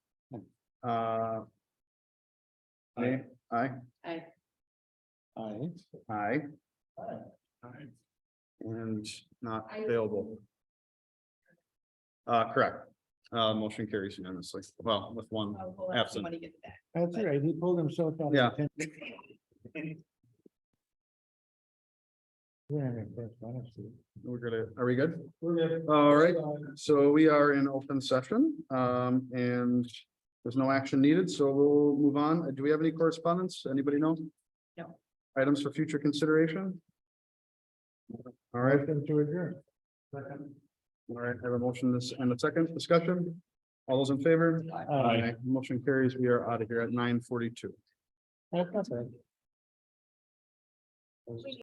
Uh. Aye, aye, I, Aye. aye, Aye. and not Aye. available. Uh, correct. Uh, motion carries unanimously. Well, with one, oh, we'll have Absent. somebody get that. That's all right, he pulled himself out. of Yeah. attention. We're in it first, honestly. we're gonna, are we good? We're good. All right, so we are in open session, um, and there's no action needed, so we'll move on. Uh, Do we have any correspondence? Anybody know? No. Items for future consideration? All right, Motion to adjourn. all right, I have a motion this and a second discussion. All those in favor? Aye. Motion carries. We are out of here at nine forty-two. That's all right.